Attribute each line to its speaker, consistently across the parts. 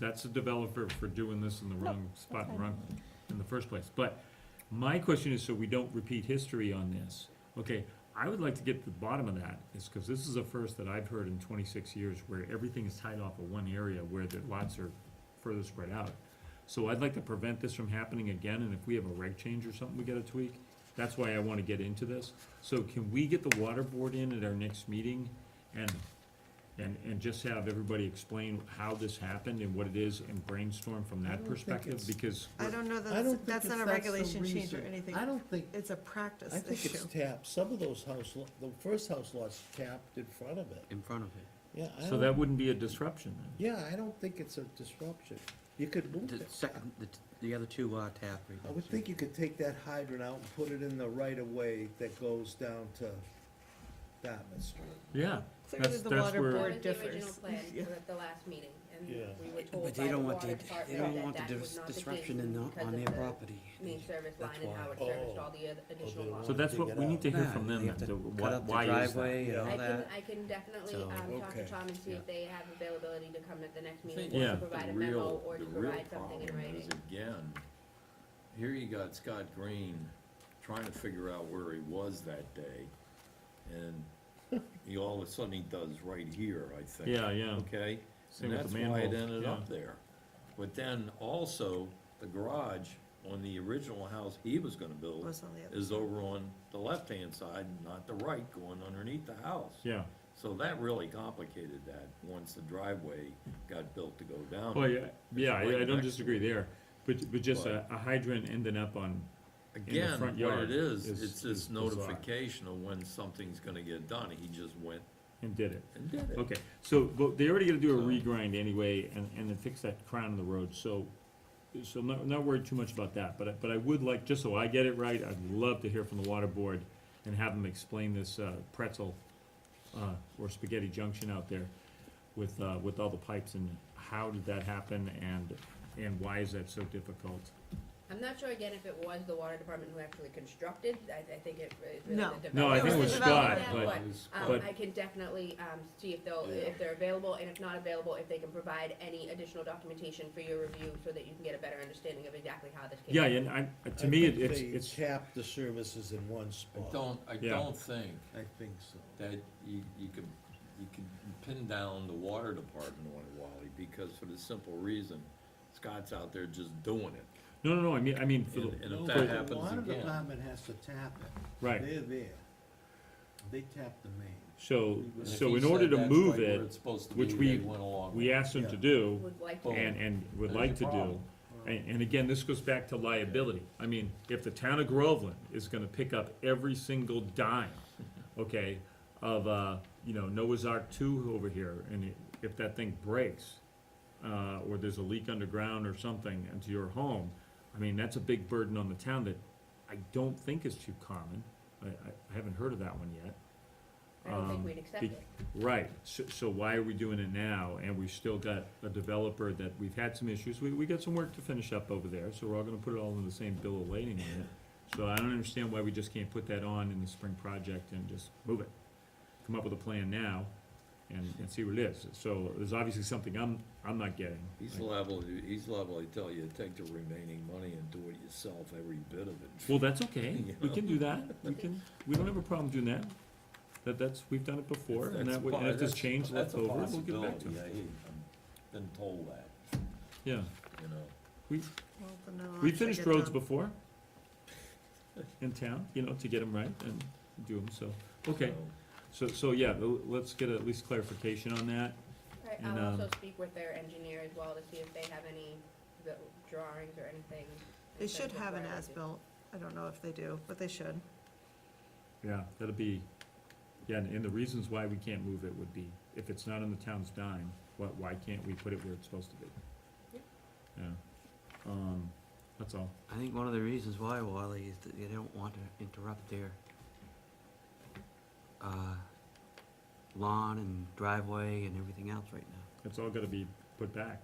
Speaker 1: That's the developer for doing this in the wrong spot,
Speaker 2: fine.
Speaker 1: and wrong, in the first place. But my question is, so we don't repeat history on this, okay, I would like to get to the bottom of that, is because this is the first that I've heard in twenty-six years where everything is tied off of one area where the lots are further spread out. So I'd like to prevent this from happening again, and if we have a reg change or something, we get a tweak. That's why I wanna get into this. So can we get the water board in at our next meeting and, and, and just have everybody explain how this happened and what it is and brainstorm from
Speaker 3: I
Speaker 1: that
Speaker 3: don't think
Speaker 1: perspective?
Speaker 3: it's-
Speaker 1: Because,
Speaker 2: I don't know
Speaker 3: I
Speaker 2: that,
Speaker 3: don't
Speaker 2: that's-
Speaker 3: think
Speaker 2: that's
Speaker 3: it's-
Speaker 2: not a
Speaker 3: the
Speaker 2: regulation change or
Speaker 3: reason.
Speaker 2: anything.
Speaker 3: I don't think,
Speaker 2: It's a
Speaker 3: I
Speaker 2: practice
Speaker 3: think
Speaker 2: issue.
Speaker 3: it's tapped, some of those house, lo- the first house lots tapped in front of it,
Speaker 4: in front of it.
Speaker 3: yeah, I
Speaker 1: so that
Speaker 3: don't,
Speaker 1: wouldn't be a disruption then.
Speaker 3: yeah, I don't think it's a disruption, you could move
Speaker 4: The
Speaker 3: it.
Speaker 4: second, the, the other two are tap
Speaker 3: I would think you could take that hydrant out and put it in the right of way that goes down to Dartmouth Street.
Speaker 1: Yeah.
Speaker 2: Clearly
Speaker 1: that's-
Speaker 2: the
Speaker 1: that's
Speaker 2: water
Speaker 1: where-
Speaker 5: That
Speaker 2: board-
Speaker 5: was the original
Speaker 2: differs.
Speaker 5: plan
Speaker 2: Yeah.
Speaker 5: at the last meeting, and
Speaker 3: Yeah.
Speaker 5: we were told
Speaker 4: But they
Speaker 5: by the
Speaker 4: don't want
Speaker 5: water
Speaker 4: the, they don't
Speaker 5: department
Speaker 4: want
Speaker 5: that
Speaker 4: the
Speaker 5: that
Speaker 4: dis-
Speaker 5: was not the
Speaker 4: disruption in,
Speaker 5: case
Speaker 4: the- on
Speaker 5: because
Speaker 4: their
Speaker 5: of the
Speaker 4: property.
Speaker 5: main service
Speaker 4: That's
Speaker 5: line and
Speaker 4: why.
Speaker 5: how it
Speaker 3: Oh.
Speaker 5: serviced all the oth- additional
Speaker 3: they
Speaker 1: So
Speaker 3: want-
Speaker 5: losses.
Speaker 1: that's what, we need to hear
Speaker 4: Yeah,
Speaker 1: from
Speaker 4: they
Speaker 1: them,
Speaker 4: have
Speaker 1: then,
Speaker 4: to
Speaker 1: the-
Speaker 4: cut
Speaker 1: why
Speaker 4: up the
Speaker 1: why is that?
Speaker 4: driveway and
Speaker 3: Yeah.
Speaker 4: all
Speaker 5: I can,
Speaker 4: that.
Speaker 5: I can definitely,
Speaker 4: So-
Speaker 5: um, talk to
Speaker 3: Okay.
Speaker 5: Tom and see if they have availability to come at the next meeting,
Speaker 1: Yeah.
Speaker 5: or to
Speaker 1: the
Speaker 5: provide a
Speaker 6: The real-
Speaker 5: memo, or
Speaker 6: the
Speaker 5: to
Speaker 6: real
Speaker 5: provide something in
Speaker 6: problem
Speaker 5: writing.
Speaker 6: is, Again, here you got Scott Green trying to figure out where he was that day, and he, all of a sudden he does right here, I think.
Speaker 1: Yeah, yeah.
Speaker 6: Okay?
Speaker 1: Same
Speaker 6: And
Speaker 1: with
Speaker 6: that's
Speaker 1: the
Speaker 6: why it
Speaker 1: manholes,
Speaker 6: ended
Speaker 1: yeah.
Speaker 6: up there. But then also, the garage on the original house he was gonna build
Speaker 2: Was on the other.
Speaker 6: is over on the left-hand side, not the right, going underneath the house.
Speaker 1: Yeah,
Speaker 6: So that really complicated that, once the driveway got built to go down.
Speaker 1: well, yeah, yeah,
Speaker 6: It's
Speaker 1: I I
Speaker 6: right
Speaker 1: don't
Speaker 6: next
Speaker 1: disagree
Speaker 6: to
Speaker 1: there, but, but just a
Speaker 6: But-
Speaker 1: a hydrant ending up on,
Speaker 6: Again,
Speaker 1: front
Speaker 6: what
Speaker 1: yard
Speaker 6: it is,
Speaker 1: is-
Speaker 6: it's
Speaker 1: is
Speaker 6: this
Speaker 1: bizarre.
Speaker 6: notification of when something's gonna get done, he just went
Speaker 1: and did it.
Speaker 6: and did it.
Speaker 1: Okay, so, but they already gotta do a
Speaker 6: So-
Speaker 1: regrind anyway, and, and then fix that crown of the road, so, so I'm not, not worried too much about that, but, I- but I would like, just so I get it right, I'd love to hear from the water board and have them explain this, uh, pretzel, uh, or spaghetti junction out there with, uh, with all the pipes and how did that happen and, and why is that so difficult?
Speaker 5: I'm not sure again if it was the water department who actually constructed, I, I think it was really
Speaker 2: No.
Speaker 5: the developer.
Speaker 1: No, I
Speaker 2: think it was Scott,
Speaker 5: Yeah,
Speaker 1: but-
Speaker 5: Um,
Speaker 1: but-
Speaker 5: I can definitely, um, see if they'll,
Speaker 6: Yeah.
Speaker 5: if they're available, and if not available, if they can provide any additional documentation for your review, so that you can get a better understanding of exactly how this came.
Speaker 1: Yeah,
Speaker 5: about.
Speaker 1: and I, to
Speaker 3: I
Speaker 1: me, it-
Speaker 3: think
Speaker 1: it's,
Speaker 3: they
Speaker 1: it's,
Speaker 3: Tapped the services in one
Speaker 6: I
Speaker 3: spot.
Speaker 6: don't, I
Speaker 1: Yeah.
Speaker 6: don't think
Speaker 3: I think so.
Speaker 6: that you, you could, you could pin down the water department on it, Wally, because for the simple reason, Scott's out there just doing it.
Speaker 1: no, no, no, I mean, I mean, for the,
Speaker 6: And- and if
Speaker 3: No,
Speaker 6: that
Speaker 3: but
Speaker 6: happens
Speaker 3: The water
Speaker 6: again-
Speaker 3: department has to tap it.
Speaker 1: Right.
Speaker 3: They're there. They tap the main.
Speaker 1: so,
Speaker 3: And
Speaker 6: And if
Speaker 1: so
Speaker 6: he
Speaker 1: in order
Speaker 6: said
Speaker 1: to
Speaker 6: that's
Speaker 1: move
Speaker 6: right where
Speaker 1: it,
Speaker 6: it's supposed to
Speaker 1: which
Speaker 6: be,
Speaker 1: we-
Speaker 6: they went along
Speaker 1: we
Speaker 6: with it.
Speaker 1: asked them to
Speaker 3: Yeah.
Speaker 1: do,
Speaker 5: Would like to.
Speaker 6: Well,
Speaker 1: and, and would
Speaker 6: There's
Speaker 1: like
Speaker 6: your
Speaker 1: to do.
Speaker 6: problem.
Speaker 1: And, and again, this goes back to liability. I mean, if the town of Groveland is gonna pick up every single dime, okay, of, uh, you know, Noah's Ark two over here, and i- if that thing breaks, uh, or there's a leak underground or something into your home, I mean, that's a big burden on the town that I don't think is too common. I, I, I haven't heard of that one yet.
Speaker 5: I don't
Speaker 1: um,
Speaker 5: think we'd accept
Speaker 1: be-
Speaker 5: it.
Speaker 1: Right, so, so why are we doing it now, and we've still got a developer that, we've had some issues, we, we got some work to finish up over there, so we're all gonna put it all in the same bill of lading on it. So I don't understand why we just can't put that on in the spring project and just move it, come up with a plan now and, and see what it is, so there's obviously something I'm, I'm not getting.
Speaker 6: He's liable, to- he's liable to tell you, take the remaining money and do it yourself, every bit of it.
Speaker 1: Well, that's okay, we can do that, we can, we don't have a problem doing that, that, that's, we've done it before, and
Speaker 6: That's
Speaker 1: that, would-
Speaker 6: po-
Speaker 1: and if there's
Speaker 6: that's-
Speaker 1: change
Speaker 6: that's
Speaker 1: left
Speaker 6: a
Speaker 1: over, we'll get back to
Speaker 6: possibility.
Speaker 1: it,
Speaker 6: I- I've Been told that,
Speaker 1: yeah.
Speaker 6: you know.
Speaker 1: We,
Speaker 2: Well, but no,
Speaker 1: We
Speaker 2: I
Speaker 1: finished
Speaker 2: get
Speaker 1: roads
Speaker 2: them.
Speaker 1: before in town, you know, to get them right and do them, so, okay.
Speaker 6: so.
Speaker 1: So, so, yeah, l- let's get at least clarification on that.
Speaker 5: Alright,
Speaker 1: and,
Speaker 5: I'll also
Speaker 1: um,
Speaker 5: speak with their engineer as well to see if they have any the drawings or anything.
Speaker 2: They
Speaker 5: in terms
Speaker 2: should
Speaker 5: of
Speaker 2: have an
Speaker 5: where it is.
Speaker 2: as-built. I don't know if they do, but they should.
Speaker 1: Yeah. That'll be, yeah, and and the reasons why we can't move it would be, if it's not on the town's dime, why, why can't we put it where it's supposed to be?
Speaker 5: Yep.
Speaker 1: Yeah, um, that's all.
Speaker 4: I think one of the reasons why, Wally, is that they don't want to interrupt their, uh, lawn and driveway and everything else right now.
Speaker 1: It's all gotta be put back.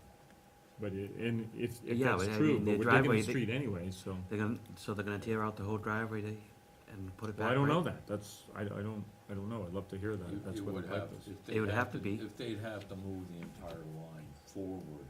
Speaker 1: But it, and if, if
Speaker 4: Yeah,
Speaker 1: that's
Speaker 4: but I
Speaker 1: true, but
Speaker 4: mean, the
Speaker 1: we're digging
Speaker 4: driveway,
Speaker 1: the
Speaker 4: they-
Speaker 1: street anyway, so.
Speaker 4: They're gonna, so they're gonna tear out the whole driveway they, and put it
Speaker 1: Well,
Speaker 4: back.
Speaker 1: I don't
Speaker 4: right?
Speaker 1: know that, that's, I, I don't, I don't know, I'd love to hear
Speaker 6: You-
Speaker 1: that, that's
Speaker 6: you
Speaker 1: what
Speaker 6: would
Speaker 1: the pipe
Speaker 6: have-
Speaker 1: is.
Speaker 6: if
Speaker 4: It
Speaker 6: they'd
Speaker 4: would have to be.
Speaker 6: If they'd have to move the entire line forward